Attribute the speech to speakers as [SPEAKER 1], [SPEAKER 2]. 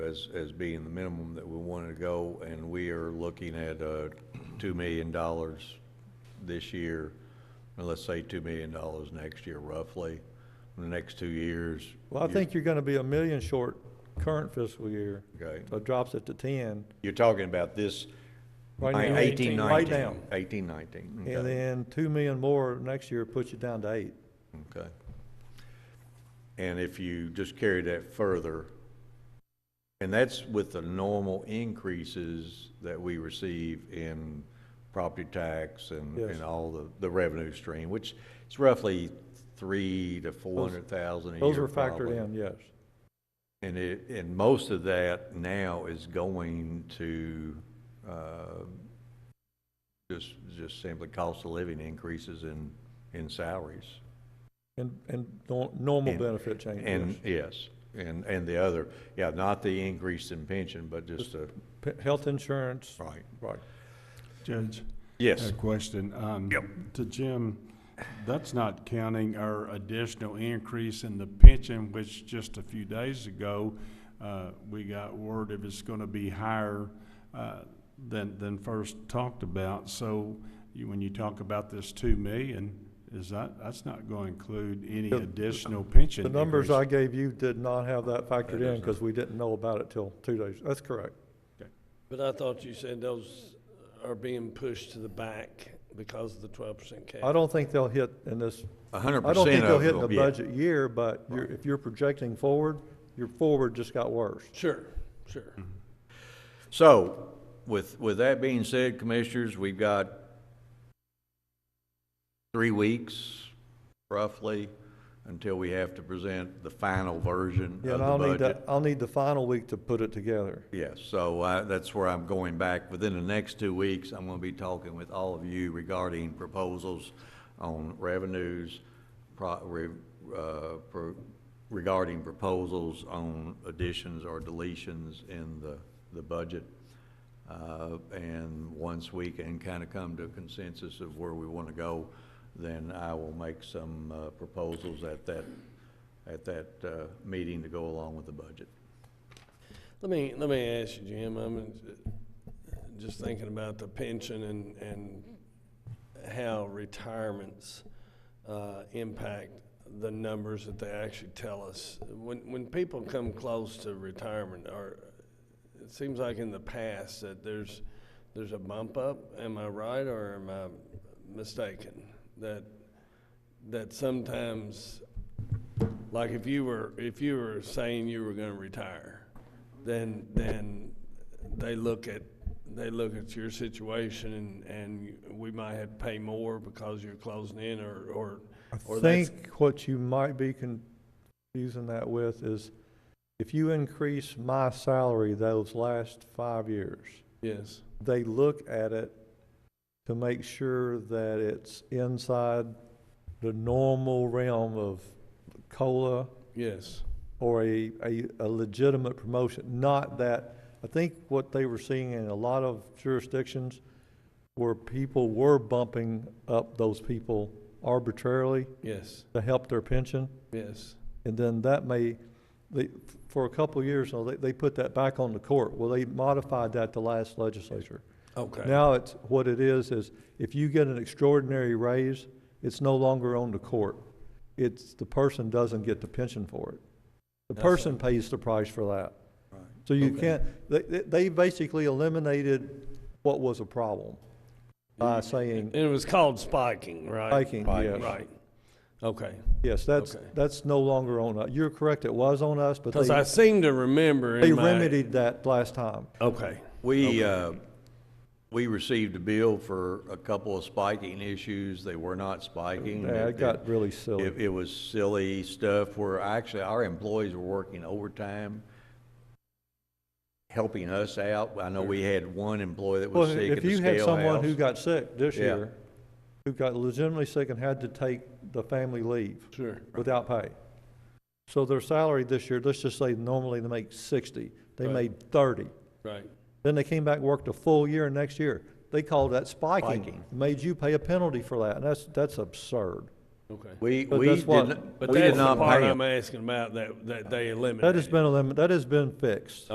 [SPEAKER 1] as, as being the minimum that we wanted to go, and we are looking at, uh, two million dollars this year, and let's say two million dollars next year roughly, in the next two years.
[SPEAKER 2] Well, I
[SPEAKER 1] you-
[SPEAKER 2] think you're gonna be a million short current fiscal year,
[SPEAKER 1] Okay,
[SPEAKER 2] so it drops it to ten.
[SPEAKER 1] you're talking about this
[SPEAKER 2] right now.
[SPEAKER 1] eighteen nineteen?
[SPEAKER 2] Right now.
[SPEAKER 1] Eighteen nineteen,
[SPEAKER 2] And
[SPEAKER 1] okay,
[SPEAKER 2] then two million more next year puts you down to eight.
[SPEAKER 1] okay. And if you just carry that further, and that's with the normal increases that we receive in property tax and,
[SPEAKER 2] Yes.
[SPEAKER 1] and all the, the revenue stream, which is roughly three to four hundred thousand a year.
[SPEAKER 2] Those are factored
[SPEAKER 1] probably.
[SPEAKER 2] in, yes.
[SPEAKER 1] And it, and most of that now is going to, uh, just, just simply cost of living increases in, in salaries.
[SPEAKER 2] And, and nor- normal
[SPEAKER 1] And-
[SPEAKER 2] benefit changes.
[SPEAKER 1] And, yes, and, and the other, yeah, not the increase in pension, but just the,
[SPEAKER 2] P- Health insurance,
[SPEAKER 1] right,
[SPEAKER 2] right.
[SPEAKER 3] Judge,
[SPEAKER 1] yes.
[SPEAKER 3] a question. um, To Jim, that's not counting our additional increase in the pension, which just a few days ago, uh, we got word if it's gonna be higher uh, than, than first talked about. So you, when you talk about this two million, is that, that's not gonna include any
[SPEAKER 2] The-
[SPEAKER 3] additional pension
[SPEAKER 2] The numbers
[SPEAKER 3] increase.
[SPEAKER 2] I gave you did not have that
[SPEAKER 1] That
[SPEAKER 2] factored in
[SPEAKER 1] doesn't-
[SPEAKER 2] because we didn't know about it till two days. That's correct.
[SPEAKER 4] But I thought you said those are being pushed to the back because of the twelve percent cap.
[SPEAKER 2] I don't think they'll hit in this,
[SPEAKER 1] A hundred
[SPEAKER 2] I don't think
[SPEAKER 1] percent
[SPEAKER 2] they'll
[SPEAKER 1] of
[SPEAKER 2] hit in the
[SPEAKER 1] them, yeah.
[SPEAKER 2] budget year, but you're, if you're projecting forward, your forward just got worse.
[SPEAKER 4] Sure, sure.
[SPEAKER 2] Mm-hmm.
[SPEAKER 1] So, with, with that being said, commissioners, we've got three weeks roughly until we have to present the final version
[SPEAKER 2] Yeah,
[SPEAKER 1] of
[SPEAKER 2] and I'll
[SPEAKER 1] the
[SPEAKER 2] need that,
[SPEAKER 1] budget.
[SPEAKER 2] I'll need the final week to put it together.
[SPEAKER 1] Yes, so uh, that's where I'm going back. Within the next two weeks, I'm going to be talking with all of you regarding proposals on revenues, pro- re- uh, pro- regarding proposals on additions or deletions in the, the budget. Uh, And once we can kind of come to a consensus of where we want to go, then I will make some uh, proposals at that, at that uh, meeting to go along with the budget.
[SPEAKER 4] Let me, let me ask you, Jim, I'm uh, just thinking about the pension and, and how retirements, uh, impact the numbers that they actually tell us. When, when people come close to retirement, or, it seems like in the past that there's, there's a bump up, am I right, or am I mistaken? That, that sometimes, like if you were, if you were saying you were gonna retire, then, then they look at, they look at your situation and, and we might have to pay more because you're closing in or, or,
[SPEAKER 2] I
[SPEAKER 4] or that's-
[SPEAKER 2] think what you might be confusing that with is if you increase my salary those last five years,
[SPEAKER 4] yes,
[SPEAKER 2] they look at it to make sure that it's inside the normal realm of COLA
[SPEAKER 4] yes,
[SPEAKER 2] or a, a, a legitimate promotion, not that, I think what they were seeing in a lot of jurisdictions where people were bumping up those people arbitrarily
[SPEAKER 4] yes,
[SPEAKER 2] to help their pension.
[SPEAKER 4] yes,
[SPEAKER 2] And then that may, they, for a couple of years, now, they, they put that back on the court. Well, they modified that the last legislature.
[SPEAKER 4] okay.
[SPEAKER 2] Now it's, what it is, is if you get an extraordinary raise, it's no longer on the court. It's, the person doesn't get the pension for it. The
[SPEAKER 4] That's
[SPEAKER 2] person pays the price for that. So you
[SPEAKER 4] Okay.
[SPEAKER 2] can't, they, they they basically eliminated what was a problem by
[SPEAKER 4] Mm.
[SPEAKER 2] saying,
[SPEAKER 4] It was called spiking, right?
[SPEAKER 2] Spiking, Spiking. yes.
[SPEAKER 4] Right. Okay.
[SPEAKER 2] yes, that's,
[SPEAKER 4] Okay.
[SPEAKER 2] that's no longer on us. You're correct, it was on us, but
[SPEAKER 4] Because I
[SPEAKER 2] they,
[SPEAKER 4] seem to remember in
[SPEAKER 2] they
[SPEAKER 4] my-
[SPEAKER 2] remedied that last time.
[SPEAKER 4] Okay.
[SPEAKER 1] We, uh, we received a bill for a couple of spiking issues. They were not
[SPEAKER 4] Mm-hmm.
[SPEAKER 1] spiking.
[SPEAKER 2] Yeah, it got really silly.
[SPEAKER 1] It, it was silly stuff where actually our employees were working overtime, helping us out. I know we had one employee that
[SPEAKER 2] Well,
[SPEAKER 1] was sick at
[SPEAKER 2] if
[SPEAKER 1] the
[SPEAKER 2] you had
[SPEAKER 1] scale
[SPEAKER 2] someone who
[SPEAKER 1] house.
[SPEAKER 2] got sick this
[SPEAKER 1] Yeah.
[SPEAKER 2] year, who got legitimately sick and had to take the family leave
[SPEAKER 4] Sure.
[SPEAKER 2] without pay. So their salary this year, let's just say normally they make sixty, they
[SPEAKER 4] Right.
[SPEAKER 2] made thirty.
[SPEAKER 4] Right.
[SPEAKER 2] Then they came back, worked a full year next year. They called that spiking,
[SPEAKER 1] Spiking.
[SPEAKER 2] made you pay a penalty for that, and that's, that's absurd.
[SPEAKER 4] Okay.
[SPEAKER 1] We,
[SPEAKER 2] but
[SPEAKER 1] we
[SPEAKER 2] that's
[SPEAKER 1] did
[SPEAKER 2] what-
[SPEAKER 1] not,
[SPEAKER 4] But
[SPEAKER 1] we
[SPEAKER 4] that's
[SPEAKER 1] did
[SPEAKER 4] the
[SPEAKER 1] not
[SPEAKER 4] part
[SPEAKER 1] pay
[SPEAKER 4] I'm
[SPEAKER 1] them.
[SPEAKER 4] asking about that, that they eliminated.
[SPEAKER 2] That has been, elim- that has been fixed.